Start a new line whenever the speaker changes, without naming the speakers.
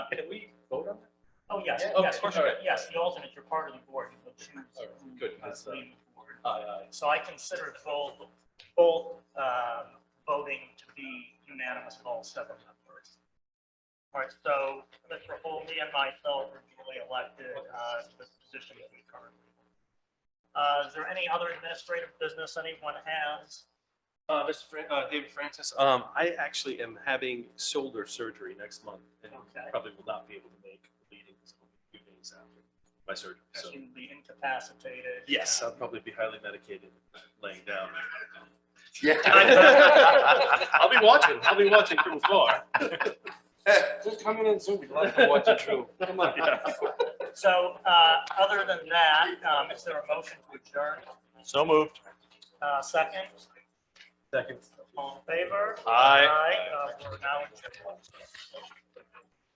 Oh, Yes,
Yeah,
yes,
okay,
you're-
all right.
yes, the alternate, you're part of the board, you can choose.
All right,
who,
good,
uh,
that's, uh,
leaves the board.
Aye, aye.
So I consider both, both um, voting to be unanimous with all seven members. All right, so Mr. Holby and myself are duly elected uh, to this position that we currently. Uh, Is there any other administrative business anyone has?
Uh, Mr. Fran, uh, David Francis, um, I actually am having shoulder surgery next month and
Okay.
probably will not be able to make the meetings a few days after my surgery. So,
Because you'd be incapacitated.
yes, I'll probably be highly medicated laying down.
Yeah.
I'll be watching, I'll be watching from afar.
Just coming in soon, we'd love to watch it too. Come on.
So uh, other than that, um, is there a motion to adjourn?
So moved.
Uh, Second,
Second.
all in favor?
Aye.
Aye. uh, We're now adjourned.